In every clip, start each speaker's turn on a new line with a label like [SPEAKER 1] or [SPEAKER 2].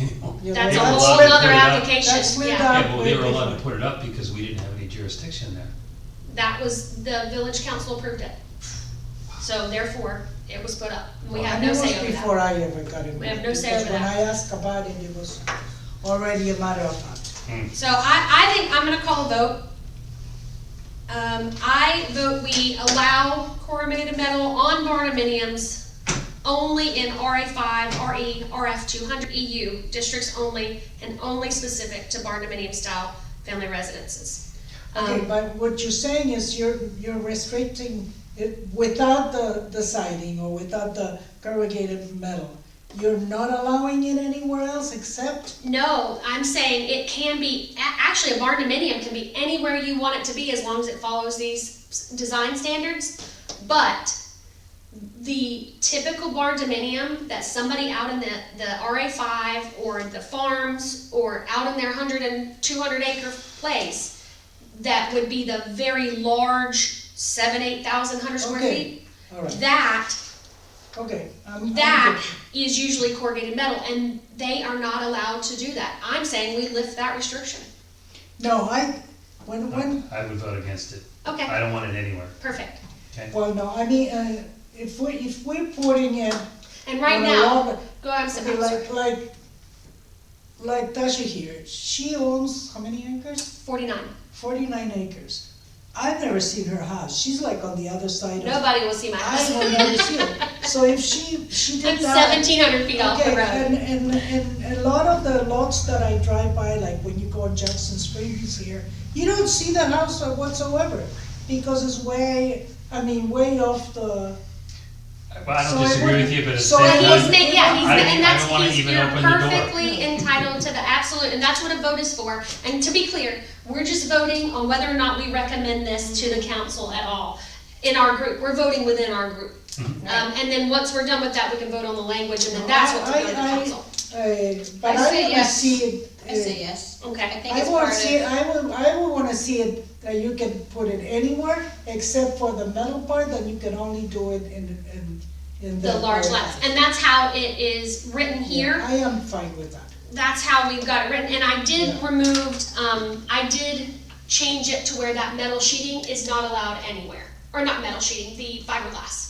[SPEAKER 1] anymore.
[SPEAKER 2] Yeah,
[SPEAKER 3] That's
[SPEAKER 2] they
[SPEAKER 3] a
[SPEAKER 2] got
[SPEAKER 3] whole
[SPEAKER 2] split-
[SPEAKER 3] other
[SPEAKER 1] Yeah.
[SPEAKER 2] That's
[SPEAKER 3] application,
[SPEAKER 2] with
[SPEAKER 3] yeah.
[SPEAKER 2] our-
[SPEAKER 1] Yeah, but we were allowed to put it up because we didn't have any jurisdiction there.
[SPEAKER 3] That was, the village council approved it. So therefore, it was put up. We have
[SPEAKER 2] And
[SPEAKER 3] no
[SPEAKER 2] it was
[SPEAKER 3] say over
[SPEAKER 2] before
[SPEAKER 3] that.
[SPEAKER 2] I ever got involved.
[SPEAKER 3] We have no say over
[SPEAKER 2] Because when
[SPEAKER 3] that.
[SPEAKER 2] I asked about it, it was already a matter of fact.
[SPEAKER 3] So I, I think I'm gonna call a vote. Um, I vote we allow corrugated metal on barnuminiums only in RA five, RE, RF two hundred EU districts only, and only specific to barnuminium style family residences.
[SPEAKER 2] Okay,
[SPEAKER 3] Um,
[SPEAKER 2] but what you're saying is you're, you're restricting it without the, the siding or without the corrugated metal. You're not allowing it anywhere else except,
[SPEAKER 3] no, I'm saying it can be, a- actually, a barnuminium can be anywhere you want it to be as long as it follows these s- design standards. But the typical barn dominium that somebody out in the, the RA five or the farms or out in their hundred and two hundred acre place, that would be the very large seven, eight thousand hundred square
[SPEAKER 2] Okay.
[SPEAKER 3] feet,
[SPEAKER 2] all right,
[SPEAKER 3] that,
[SPEAKER 2] okay. I'm- I'm
[SPEAKER 3] that
[SPEAKER 2] good.
[SPEAKER 3] is usually corrugated metal and they are not allowed to do that. I'm saying we lift that restriction.
[SPEAKER 2] No, I, when, when,
[SPEAKER 1] I would vote against it. I
[SPEAKER 3] Okay,
[SPEAKER 1] don't want it anywhere,
[SPEAKER 3] perfect.
[SPEAKER 1] okay?
[SPEAKER 2] well, no, I mean, uh, if we, if we're putting in.
[SPEAKER 3] And right
[SPEAKER 2] on a
[SPEAKER 3] now,
[SPEAKER 2] lot-
[SPEAKER 3] go ahead, Sam,
[SPEAKER 2] Okay,
[SPEAKER 3] I'm sorry,
[SPEAKER 2] like, like, like Tasha here, she owns how many acres?
[SPEAKER 3] forty-nine.
[SPEAKER 2] Forty-nine acres. I've never seen her house, she's like on the other side of.
[SPEAKER 3] Nobody will see my
[SPEAKER 2] I
[SPEAKER 3] house.
[SPEAKER 2] will never see it. So if she, she
[SPEAKER 3] I'm
[SPEAKER 2] did that.
[SPEAKER 3] seventeen hundred feet off the
[SPEAKER 2] Okay,
[SPEAKER 3] road.
[SPEAKER 2] and, and, and a lot of the lots that I drive by, like when you go on Jackson Springs here, you don't see the house whatsoever, because it's way, I mean, way off the. uh,
[SPEAKER 1] Well, I
[SPEAKER 2] so
[SPEAKER 1] don't
[SPEAKER 2] it
[SPEAKER 1] disagree with
[SPEAKER 2] wouldn't-
[SPEAKER 1] you, but it's.
[SPEAKER 2] so it
[SPEAKER 3] But he's
[SPEAKER 2] wouldn't-
[SPEAKER 3] ma- yeah, he's,
[SPEAKER 1] I
[SPEAKER 3] ma-
[SPEAKER 1] don't-
[SPEAKER 3] and
[SPEAKER 1] I
[SPEAKER 3] that's,
[SPEAKER 1] don't wanna
[SPEAKER 3] he's,
[SPEAKER 1] even
[SPEAKER 3] you're
[SPEAKER 1] open the door.
[SPEAKER 3] perfectly entitled to the absolute, and that's what a vote is for. And to be clear, we're just voting on whether or not we recommend this to the council at all, in our group, we're voting within our group. Um,
[SPEAKER 1] Mm-hmm.
[SPEAKER 3] and then once we're done with that, we can vote on the language, and then that's what
[SPEAKER 2] I-
[SPEAKER 3] we're going to
[SPEAKER 2] I-
[SPEAKER 3] council,
[SPEAKER 2] Uh, but
[SPEAKER 4] I
[SPEAKER 2] I
[SPEAKER 4] say
[SPEAKER 2] wanna
[SPEAKER 4] yes.
[SPEAKER 2] see it.
[SPEAKER 4] I
[SPEAKER 2] uh,
[SPEAKER 4] say yes. I
[SPEAKER 3] okay?
[SPEAKER 4] think
[SPEAKER 2] I
[SPEAKER 4] it's
[SPEAKER 2] want
[SPEAKER 4] part
[SPEAKER 2] to see, it-
[SPEAKER 4] of,
[SPEAKER 2] I would, I would wanna see it, that you can put it anywhere, except for the metal part, that you can only do it in, in, in the.
[SPEAKER 3] The large lots, and that's how it is written here.
[SPEAKER 2] Yeah, I am fine with that.
[SPEAKER 3] that's how we've got it written, and I did
[SPEAKER 2] Yeah.
[SPEAKER 3] removed, um, I did change it to where that metal sheeting is not allowed anywhere, or not metal sheeting, the fiberglass.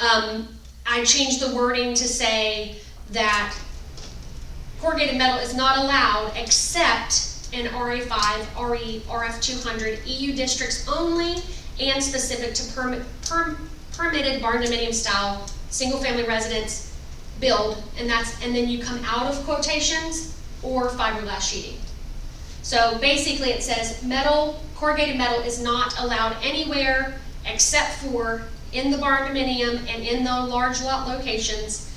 [SPEAKER 3] Um, I changed the wording to say that corrugated metal is not allowed except in RA five, RE, RF two hundred, EU districts only, and specific to permit, per, permitted barn dominium style, single-family residence, build, and that's, and then you come out of quotations or fiberglass sheeting. So basically, it says metal, corrugated metal is not allowed anywhere except for in the barn dominium and in the large lot locations.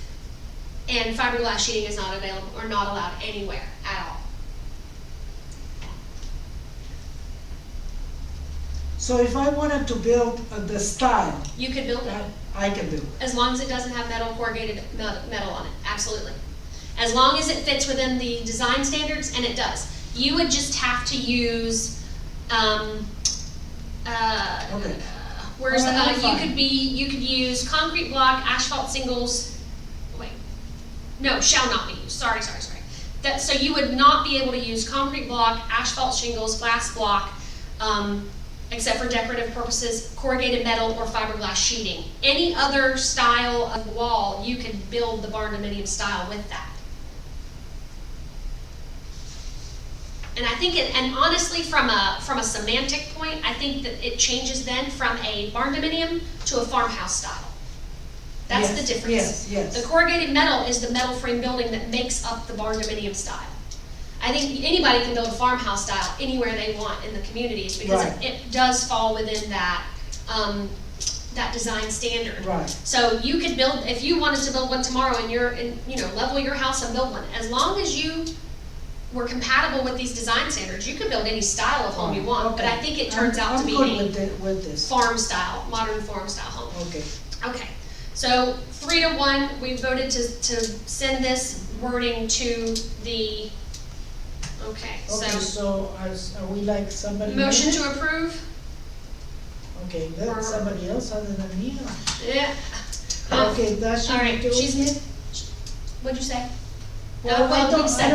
[SPEAKER 3] And fiberglass sheeting is not available, or not allowed anywhere at all.
[SPEAKER 2] So if I wanted to build uh, the style,
[SPEAKER 3] You could build
[SPEAKER 2] I-
[SPEAKER 3] it,
[SPEAKER 2] I can do. it.
[SPEAKER 3] as long as it doesn't have metal corrugated metal metal on it, absolutely. As long as it fits within the design standards, and it does. You would just have to use, um, uh,
[SPEAKER 2] Okay.
[SPEAKER 3] where's, the-
[SPEAKER 2] Alright,
[SPEAKER 3] uh,
[SPEAKER 2] I'm
[SPEAKER 3] you
[SPEAKER 2] fine.
[SPEAKER 3] could be, you could use concrete block, asphalt singles, wait, no, shall not be used, sorry, sorry, sorry. That, so you would not be able to use concrete block, asphalt shingles, glass block, um, except for decorative purposes, corrugated metal or fiberglass sheeting. Any other style of wall, you could build the barn dominium style with that. And I think it, and honestly, from a, from a semantic point, I think that it changes then from a barn dominium to a farmhouse style. That's the
[SPEAKER 2] Yes,
[SPEAKER 3] difference.
[SPEAKER 2] Yes,
[SPEAKER 3] The
[SPEAKER 2] yes.
[SPEAKER 3] corrugated metal is the metal frame building that makes up the barn dominium style. I think anybody can build a farmhouse style anywhere they want in the communities, because
[SPEAKER 2] Right.
[SPEAKER 3] it does fall within that, um, that design standard.
[SPEAKER 2] Right,
[SPEAKER 3] So you could build, if you wanted to build one tomorrow and you're, and, you know, level your house and build one, as long as you were compatible with these design standards, you could build any style of home you want, but I think it turns out to be
[SPEAKER 2] I'm good
[SPEAKER 3] a
[SPEAKER 2] with thi- with this,
[SPEAKER 3] farm style, modern farm style home.
[SPEAKER 2] okay.
[SPEAKER 3] Okay, so three to one, we voted to, to send this wording to the,
[SPEAKER 2] Okay,
[SPEAKER 3] okay, so,
[SPEAKER 2] so are, s- are we like somebody?
[SPEAKER 3] motion
[SPEAKER 2] else?
[SPEAKER 3] to approve?
[SPEAKER 2] Okay, that's somebody else other than me.
[SPEAKER 3] Yeah. Um,
[SPEAKER 2] Okay, that should
[SPEAKER 3] All right,
[SPEAKER 2] do
[SPEAKER 3] she's-
[SPEAKER 2] it.
[SPEAKER 3] What'd you say? That
[SPEAKER 2] Well, I
[SPEAKER 3] would
[SPEAKER 2] don't-
[SPEAKER 3] make
[SPEAKER 2] I
[SPEAKER 3] sense.